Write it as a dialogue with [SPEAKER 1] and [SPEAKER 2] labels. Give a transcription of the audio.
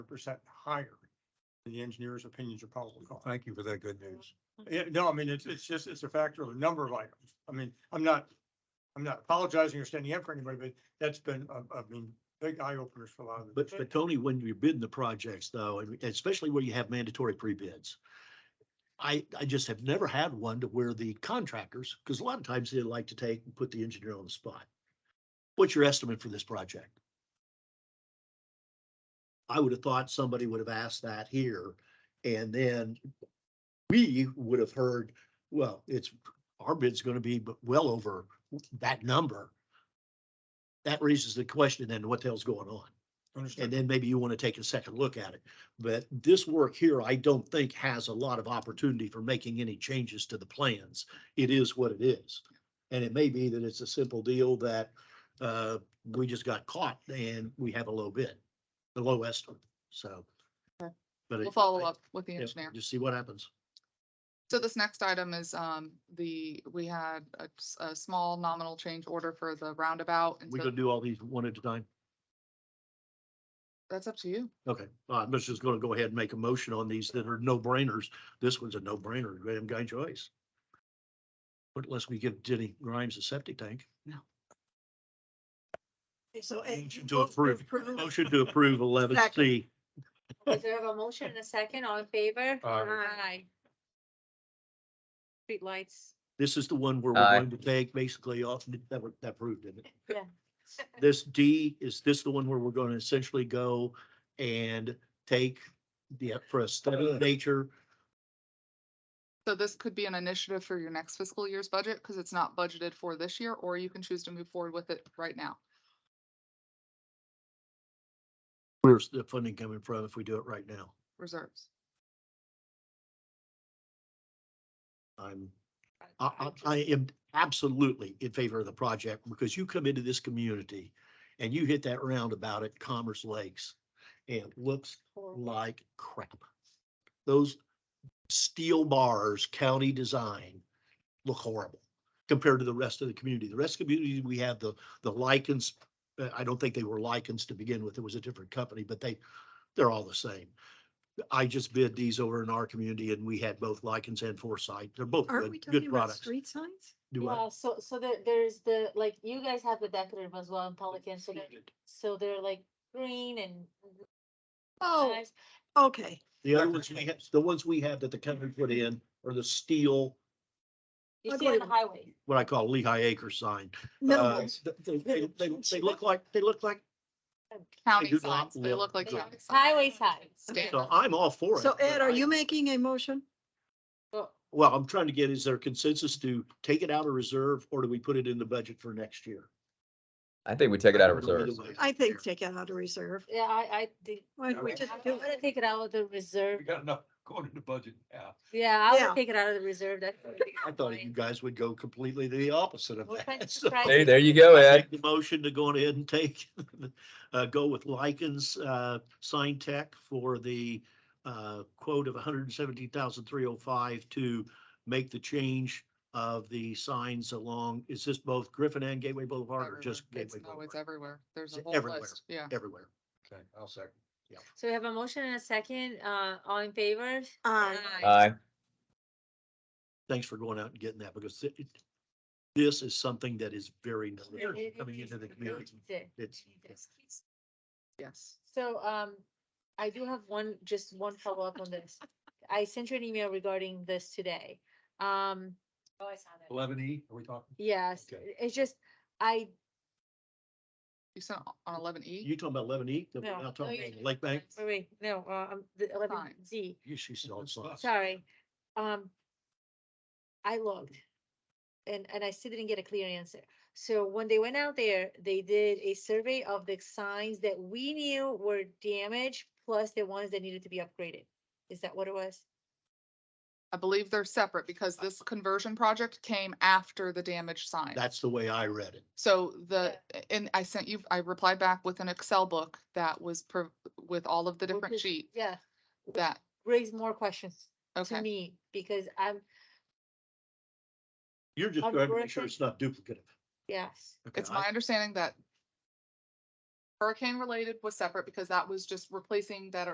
[SPEAKER 1] percent higher. than The engineer's opinions are probably going.
[SPEAKER 2] Thank you for that good news.
[SPEAKER 1] Yeah, no, I mean, it's, it's just, it's a factor of a number of items. I mean, I'm not, I'm not apologizing or standing up for anybody, but that's been, I, I mean, big eye openers for a lot of. the-
[SPEAKER 3] But, but Tony, when you're bidding the projects though, and especially where you have mandatory pre-bids, I, I just have never had one to where the contractors, because a lot of times they like to take and put the engineer on the spot. What's your estimate for this project? I would have thought somebody would have asked that here and then we would have heard, well, it's, our bid's going to be b- well over that number. That raises the question then, what the hell's going on? And
[SPEAKER 1] Understand.
[SPEAKER 3] then maybe you want to take a second look at it. But this work here, I don't think has a lot of opportunity for making any changes to the plans. It is what it is. And it may be that it's a simple deal that uh, we just got caught and we have a low bid, the low estimate, so.
[SPEAKER 4] Okay.
[SPEAKER 3] but
[SPEAKER 4] We'll
[SPEAKER 3] it-
[SPEAKER 4] follow up with the
[SPEAKER 3] yeah,
[SPEAKER 4] engineer.
[SPEAKER 3] Just see what happens.
[SPEAKER 4] So this next item is, um, the, we had a, s- a small nominal change order for the roundabout. and
[SPEAKER 3] We
[SPEAKER 4] so
[SPEAKER 3] gonna do all these one at a time?
[SPEAKER 4] That's up to you.
[SPEAKER 3] Okay, uh, I'm just gonna go ahead and make a motion on these that are no brainers. This one's a no brainer, Graham Guy Joyce. But unless we give Denny Grimes a septic tank.
[SPEAKER 5] Okay, So. it-
[SPEAKER 3] Motion eh, to
[SPEAKER 5] move
[SPEAKER 3] approve. Motion to approve eleven C.
[SPEAKER 5] Is there a motion and a second, all in favor?
[SPEAKER 1] Aye.
[SPEAKER 5] Street lights.
[SPEAKER 3] This is the one where we're
[SPEAKER 6] Aye.
[SPEAKER 3] going to take basically off, that, were- that proved, didn't it?
[SPEAKER 5] Yeah.
[SPEAKER 3] This D, is this the one where we're going to essentially go and take the, for a study of nature?
[SPEAKER 4] So this could be an initiative for your next fiscal year's budget because it's not budgeted for this year, or you can choose to move forward with it right now.
[SPEAKER 3] Where's the funding coming from if we do it right now?
[SPEAKER 4] Reserves.
[SPEAKER 3] I'm I, I, I am absolutely in favor of the project because you come into this community and you hit that roundabout at Commerce Lakes and it looks like crap. Those steel bars, county design, look horrible compared to the rest of the community. The rest of the community, we have the, the lichens. uh, I don't think they were lichens to begin with. It was a different company, but they, they're all the same. I just bid these over in our community and we had both lichens and foresight. They're both
[SPEAKER 7] Aren't we
[SPEAKER 3] good,
[SPEAKER 7] talking
[SPEAKER 3] good
[SPEAKER 7] about
[SPEAKER 3] products.
[SPEAKER 7] street signs?
[SPEAKER 3] Do I?
[SPEAKER 5] Well, so, so there, there's the, like, you guys have the decorative as well in Pelican, so they're, so they're like green and.
[SPEAKER 7] Oh,
[SPEAKER 5] nice.
[SPEAKER 7] okay.
[SPEAKER 3] The other ones we have, the ones we have that the company put in are the steel,
[SPEAKER 5] You
[SPEAKER 7] I'll
[SPEAKER 5] see on the
[SPEAKER 7] go-
[SPEAKER 5] highway.
[SPEAKER 3] what I call Lehigh Acre sign. Uh,
[SPEAKER 7] No,
[SPEAKER 3] They, they, they, they look like, they look like,
[SPEAKER 4] County
[SPEAKER 3] do not
[SPEAKER 4] signs, they look
[SPEAKER 3] look
[SPEAKER 4] like
[SPEAKER 5] good.
[SPEAKER 4] county signs.
[SPEAKER 5] Highway signs.
[SPEAKER 4] Standard.
[SPEAKER 3] so I'm all for it.
[SPEAKER 7] so Ed,
[SPEAKER 3] but
[SPEAKER 7] are
[SPEAKER 3] I-
[SPEAKER 7] you making a motion?
[SPEAKER 5] So,
[SPEAKER 3] Well, I'm trying to get, is there consensus to take it out of reserve or do we put it in the budget for next year?
[SPEAKER 6] I think we take it out of
[SPEAKER 3] Either
[SPEAKER 6] reserves.
[SPEAKER 3] way.
[SPEAKER 7] I think take it out of reserve.
[SPEAKER 5] Yeah, I, I think,
[SPEAKER 7] Why don't we
[SPEAKER 2] Okay.
[SPEAKER 7] just
[SPEAKER 5] I'm
[SPEAKER 7] do
[SPEAKER 5] gonna
[SPEAKER 7] it?
[SPEAKER 5] take it out of the reserve,
[SPEAKER 2] We got enough going into budget now.
[SPEAKER 5] yeah, I
[SPEAKER 7] Yeah.
[SPEAKER 5] would take it out of the reserve, that's.
[SPEAKER 3] I thought you guys would go completely the opposite of
[SPEAKER 5] Well,
[SPEAKER 3] that.
[SPEAKER 5] thanks
[SPEAKER 3] so-
[SPEAKER 5] for trying.
[SPEAKER 6] There, there you go,
[SPEAKER 3] I
[SPEAKER 6] Ed.
[SPEAKER 3] make The motion to go on ahead and take, uh, go with Lycan's, uh, Sign Tech for the, uh, quote of 117,305 to make the change of the signs along, is this both Griffin and Gateway Boulevard or
[SPEAKER 4] Everywhere.
[SPEAKER 3] just
[SPEAKER 4] It's-
[SPEAKER 3] Gateway
[SPEAKER 4] No, it's
[SPEAKER 3] Boulevard?
[SPEAKER 4] everywhere. There's a
[SPEAKER 3] It's
[SPEAKER 4] whole
[SPEAKER 3] everywhere.
[SPEAKER 4] list, yeah.
[SPEAKER 3] Everywhere.
[SPEAKER 2] Okay, I'll second.
[SPEAKER 5] So we have a motion and a second, uh, all in favor?
[SPEAKER 7] Aye.
[SPEAKER 5] Uh,
[SPEAKER 6] Aye.
[SPEAKER 3] Thanks for going out and getting that because it, it- this is something that is very necessary
[SPEAKER 5] It-
[SPEAKER 3] coming
[SPEAKER 5] it-
[SPEAKER 3] into the
[SPEAKER 5] it-
[SPEAKER 3] community.
[SPEAKER 5] it-
[SPEAKER 3] It's-
[SPEAKER 5] it's-
[SPEAKER 4] Yes.
[SPEAKER 5] So, um, I do have one, just one follow-up on this. I sent you an email regarding this today. Um. Oh, I saw that.
[SPEAKER 2] Eleven E, are we talking?
[SPEAKER 5] Yes,
[SPEAKER 2] Okay.
[SPEAKER 5] it's just, I,
[SPEAKER 4] You sent on eleven E?
[SPEAKER 3] You talking about eleven E,
[SPEAKER 5] no.
[SPEAKER 3] now
[SPEAKER 5] no,
[SPEAKER 3] talking
[SPEAKER 5] you-
[SPEAKER 3] about Lake Bank?
[SPEAKER 5] Wait, wait, no, uh, um, the eleven
[SPEAKER 4] Fine.
[SPEAKER 5] Z,
[SPEAKER 3] You, she's all signs.
[SPEAKER 5] sorry. Um, I looked. And, and I still didn't get a clear answer. So when they went out there, they did a survey of the signs that we knew were damaged, plus the ones that needed to be upgraded. Is that what it was?
[SPEAKER 4] I believe they're separate because this conversion project came after the damaged sign.
[SPEAKER 3] That's the way I read it.
[SPEAKER 4] So the, and I sent you, I replied back with an Excel book that was pro- with all of the different
[SPEAKER 5] is-
[SPEAKER 4] sheets
[SPEAKER 5] Yeah,
[SPEAKER 4] that,
[SPEAKER 5] raise more questions to
[SPEAKER 4] okay.
[SPEAKER 5] me, because I'm,
[SPEAKER 3] You're just
[SPEAKER 5] I'm
[SPEAKER 3] trying to make sure
[SPEAKER 5] working-
[SPEAKER 3] it's not duplicative.
[SPEAKER 5] yes,
[SPEAKER 3] Okay,
[SPEAKER 4] It's
[SPEAKER 3] I-
[SPEAKER 4] my understanding that hurricane related was separate because that was just replacing that